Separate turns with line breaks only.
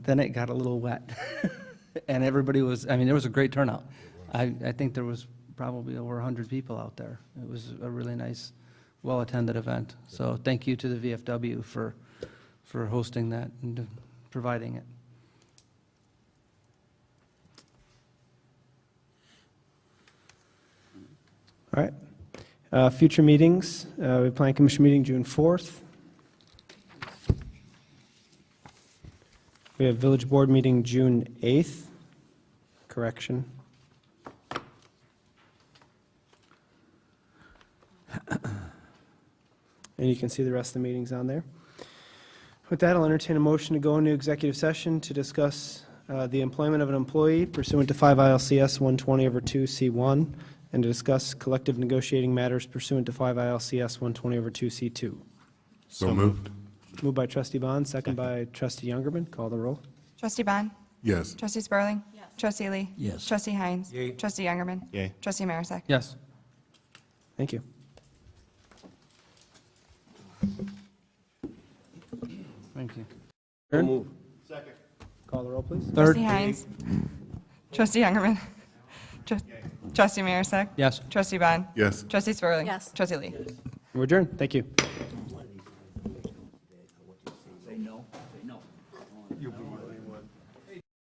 then it got a little wet. And everybody was, I mean, there was a great turnout. I, I think there was probably over 100 people out there. It was a really nice, well-attended event. So thank you to the VFW for, for hosting that and providing it.
All right. Uh, Future meetings, uh, we plan commission meeting June 4th. We have village board meeting June 8th, correction. And you can see the rest of the meetings on there. With that, I'll entertain a motion to go into executive session to discuss uh, the employment of an employee pursuant to 5 ILCS 120 over 2 C1 and to discuss collective negotiating matters pursuant to 5 ILCS 120 over 2 C2.
So moved.
Moved by trustee Bond, second by trustee Youngerman. Call the roll.
Trustee Bond?
Yes.
Trustee Spurling? Yes. Trustee Lee?
Yes.
Trustee Heinz? Trustee Youngerman?
Yay.
Trustee Marisak?
Yes.
Thank you.
Thank you.
Call the roll, please.
Third.
Trustee Heinz? Trustee Youngerman? Tru- Trustee Marisak?
Yes.
Trustee Bond?
Yes.
Trustee Spurling?
Yes.
Trustee Lee?
We're adjourned. Thank you.